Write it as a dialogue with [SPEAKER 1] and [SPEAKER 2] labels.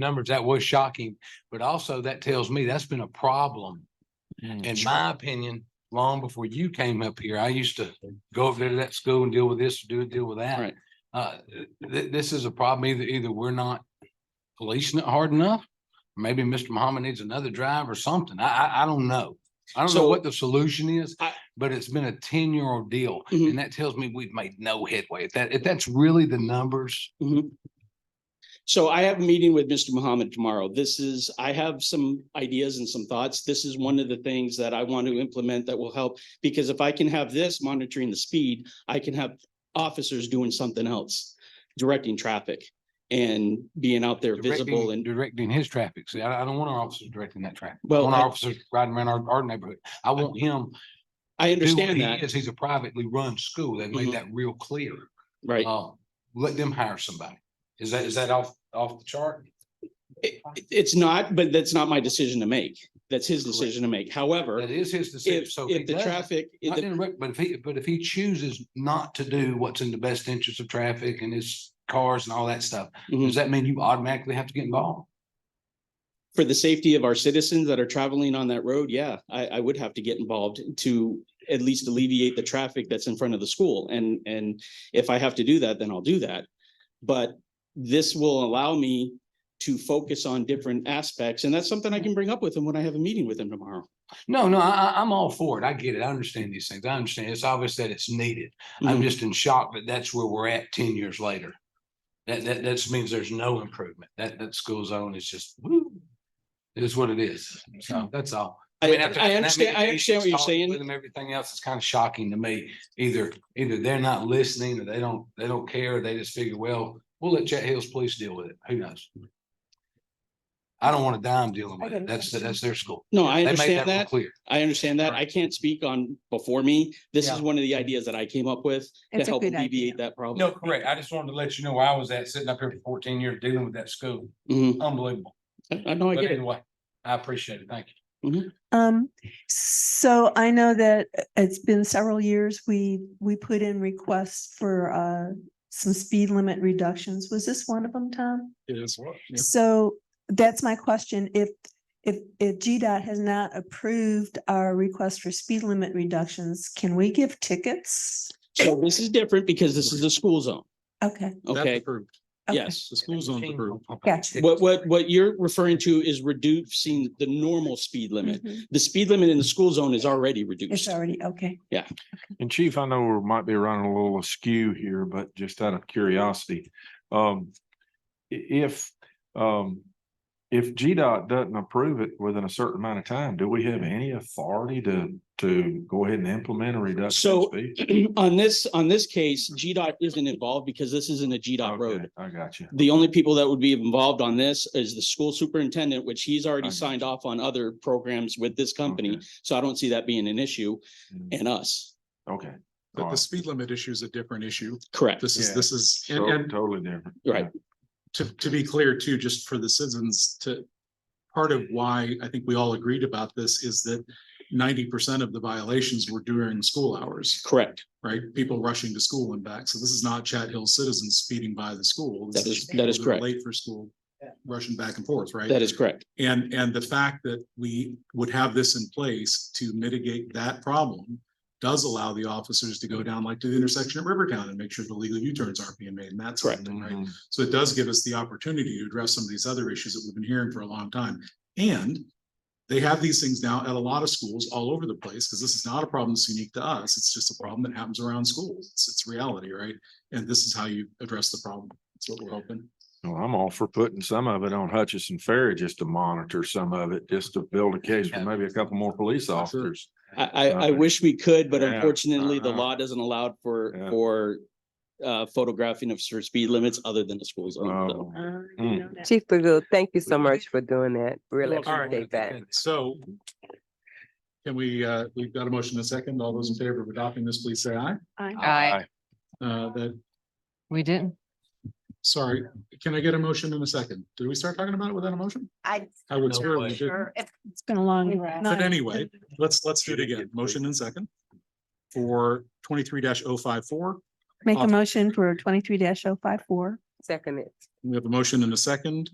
[SPEAKER 1] numbers, that was shocking, but also that tells me that's been a problem. In my opinion, long before you came up here, I used to go over there to that school and deal with this, do, deal with that.
[SPEAKER 2] Right.
[SPEAKER 1] Uh, th- this is a problem. Either, either we're not policing it hard enough. Maybe Mr. Muhammad needs another drive or something. I, I, I don't know. I don't know
[SPEAKER 2] So-
[SPEAKER 1] what the solution is,
[SPEAKER 2] I-
[SPEAKER 1] but it's been a ten-year-old deal.
[SPEAKER 2] Mhm.
[SPEAKER 1] And that tells me we've made no headway. If that, if that's really the numbers,
[SPEAKER 2] Mhm. So I have a meeting with Mr. Mohammed tomorrow. This is, I have some ideas and some thoughts. This is one of the things that I want to implement that will help. Because if I can have this monitoring the speed, I can have officers doing something else, directing traffic and being out there visible
[SPEAKER 1] directing,
[SPEAKER 2] and,
[SPEAKER 1] directing his traffic. See, I, I don't want our officers directing that traffic. I
[SPEAKER 2] well,
[SPEAKER 1] want our
[SPEAKER 2] I-
[SPEAKER 1] officers riding around our, our neighborhood. I want him.
[SPEAKER 2] I
[SPEAKER 1] to do what
[SPEAKER 2] understand
[SPEAKER 1] he
[SPEAKER 2] that,
[SPEAKER 1] is. He's a privately run school. They made
[SPEAKER 2] Mhm.
[SPEAKER 1] that real clear.
[SPEAKER 2] right?
[SPEAKER 1] Um, let them hire somebody. Is that, is that off, off the chart?
[SPEAKER 2] It- It's not, but that's not my decision to make. That's his
[SPEAKER 1] Correct.
[SPEAKER 2] decision to make. However,
[SPEAKER 1] That is his decision.
[SPEAKER 2] if,
[SPEAKER 1] So if he
[SPEAKER 2] if the
[SPEAKER 1] does-
[SPEAKER 2] traffic, if
[SPEAKER 1] not
[SPEAKER 2] the
[SPEAKER 1] to interrupt, but if he, but if he chooses not to do what's in the best interest of traffic and his cars and all that stuff,
[SPEAKER 2] Mhm.
[SPEAKER 1] does that mean you automatically have to get involved?
[SPEAKER 2] for the safety of our citizens that are traveling on that road, yeah, I, I would have to get involved to at least alleviate the traffic that's in front of the school. And, and if I have to do that, then I'll do that. But this will allow me to focus on different aspects, and that's something I can bring up with him when I have a meeting with him tomorrow.
[SPEAKER 1] No, no, I, I- I'm all for it. I get it. I understand these things. I understand. It's obvious that it's needed. I'm
[SPEAKER 2] Mhm.
[SPEAKER 1] just in shock that that's where we're at ten years later. That, that, that means there's no improvement. That, that school zone is just, woo. It is what it is. So that's all.
[SPEAKER 2] Mm-hmm. I,
[SPEAKER 1] mean, after
[SPEAKER 2] I
[SPEAKER 1] having that many
[SPEAKER 2] understand, I understand
[SPEAKER 1] meetings,
[SPEAKER 2] what you're
[SPEAKER 1] talking With
[SPEAKER 2] saying.
[SPEAKER 1] them, everything else is kind of shocking to me. Either, either they're not listening or they don't, they don't care. or They just figure, well, we'll let Chet Hills Police deal with it. Who knows? I don't want a dime dealing with it. That's, that's their school.
[SPEAKER 2] No, I
[SPEAKER 1] They made
[SPEAKER 2] understand
[SPEAKER 1] real
[SPEAKER 2] that.
[SPEAKER 1] Clear.
[SPEAKER 2] I understand that. I can't speak on before me. This is
[SPEAKER 1] Yeah.
[SPEAKER 2] one of the ideas that I came up with to
[SPEAKER 3] It's a
[SPEAKER 2] help
[SPEAKER 3] good idea.
[SPEAKER 2] alleviate that problem.
[SPEAKER 1] No, correct. I just wanted to let you know where I was at, sitting up here for fourteen years dealing with that school.
[SPEAKER 2] Mhm.
[SPEAKER 4] Mm-hmm.
[SPEAKER 1] Unbelievable.
[SPEAKER 2] I I know, I
[SPEAKER 1] But
[SPEAKER 2] get it.
[SPEAKER 1] anyway, I appreciate it. Thank you.
[SPEAKER 3] Um, so I know that uh, it's been several years, we, we put in requests for, uh, some speed limit reductions. Was this one of them, Tom?
[SPEAKER 5] It is what?
[SPEAKER 3] So that's my question. If, if, if GDOT has not approved our request for speed limit reductions, can we give tickets?
[SPEAKER 2] So this is different because this is a school zone.
[SPEAKER 3] Okay.
[SPEAKER 2] Okay,
[SPEAKER 5] Approved.
[SPEAKER 3] okay.
[SPEAKER 2] yes.
[SPEAKER 5] The school zone's approved.
[SPEAKER 3] Gotcha.
[SPEAKER 2] What, what, what you're referring to is reducing the normal speed limit.
[SPEAKER 3] Mhm.
[SPEAKER 2] The speed limit in the school zone is already
[SPEAKER 3] It's
[SPEAKER 2] reduced.
[SPEAKER 3] already, okay.
[SPEAKER 5] And Chief, I know we might be running a little askew here, but just out of curiosity, um, i- if, um, if GDOT doesn't approve it within a certain amount of time, do we have any authority to, to go ahead and implement a reduction? in
[SPEAKER 2] So-
[SPEAKER 5] speed?
[SPEAKER 2] On this, on this case, GDOT isn't involved because this isn't a GDOT
[SPEAKER 5] Okay,
[SPEAKER 2] road.
[SPEAKER 5] I got you.
[SPEAKER 2] The only people that would be involved on this is the school superintendent, which he's already
[SPEAKER 5] Okay.
[SPEAKER 2] signed off on other programs with this company.
[SPEAKER 5] Okay.
[SPEAKER 2] So I don't see that being an issue and us.
[SPEAKER 5] Okay.
[SPEAKER 6] But
[SPEAKER 5] Alright.
[SPEAKER 6] the speed limit issue is a different issue.
[SPEAKER 2] Correct.
[SPEAKER 6] This is,
[SPEAKER 5] Yeah.
[SPEAKER 6] this is, and,
[SPEAKER 5] So
[SPEAKER 6] and
[SPEAKER 5] Totally different.
[SPEAKER 2] Right.
[SPEAKER 6] to, to be clear too, just for the citizens to. Part of why I think we all agreed about this is that ninety percent of the violations were during school hours,
[SPEAKER 2] Correct.
[SPEAKER 6] right? People rushing to school and back. So this is not Chat Hill citizens speeding by the school. This
[SPEAKER 2] That is-
[SPEAKER 6] just
[SPEAKER 2] that
[SPEAKER 6] people
[SPEAKER 2] is
[SPEAKER 6] are
[SPEAKER 2] correct.
[SPEAKER 6] Late for school, rushing back and forth, right?
[SPEAKER 2] That is correct.
[SPEAKER 6] And, and the fact that we would have this in place to mitigate that problem does allow the officers to go down like to the intersection at Rivertown and make sure the legal U-turns aren't being made and that's
[SPEAKER 2] Correct.
[SPEAKER 6] right.
[SPEAKER 5] Mhm.
[SPEAKER 6] So it does give us the opportunity to address some of these other issues that we've been hearing for a long time. And they have these things now at a lot of schools all over the place, because this is not a problem that's unique to us. It's just a problem that happens around schools. It's, it's reality, right? And this is how you address the problem. That's what we're hoping.
[SPEAKER 5] Well, I'm all for putting some of it on Hutchinson Ferry just to monitor some of it, just to build a case for maybe a couple more police officers.
[SPEAKER 2] I, I, I
[SPEAKER 5] Uh,
[SPEAKER 2] wish we could, but
[SPEAKER 5] yeah,
[SPEAKER 2] unfortunately, the
[SPEAKER 5] uh-huh.
[SPEAKER 2] law doesn't allow for,
[SPEAKER 5] Yeah.
[SPEAKER 2] for uh, photographing of for speed limits other than the school zone. so.
[SPEAKER 3] Uh,
[SPEAKER 5] Oh,
[SPEAKER 4] Chief Magoo, thank you so much for doing that. Really
[SPEAKER 1] All right.
[SPEAKER 4] appreciate that.
[SPEAKER 6] So can we, uh, we've got a motion and a second. All those in favor of adopting this, please say aye.
[SPEAKER 7] Aye.
[SPEAKER 6] Uh, that,
[SPEAKER 7] We didn't.
[SPEAKER 6] sorry, can I get a motion in a second? Did we start talking about it without a motion?
[SPEAKER 8] I.
[SPEAKER 6] I would
[SPEAKER 1] No
[SPEAKER 6] swear
[SPEAKER 1] way.
[SPEAKER 6] we did.
[SPEAKER 3] It's been a long.
[SPEAKER 8] But
[SPEAKER 3] night.
[SPEAKER 6] anyway, Let's, let's do it again. Motion and second for twenty-three oh 54
[SPEAKER 3] Make a motion for twenty-three oh 54
[SPEAKER 4] Second it.
[SPEAKER 6] We have a motion and a second.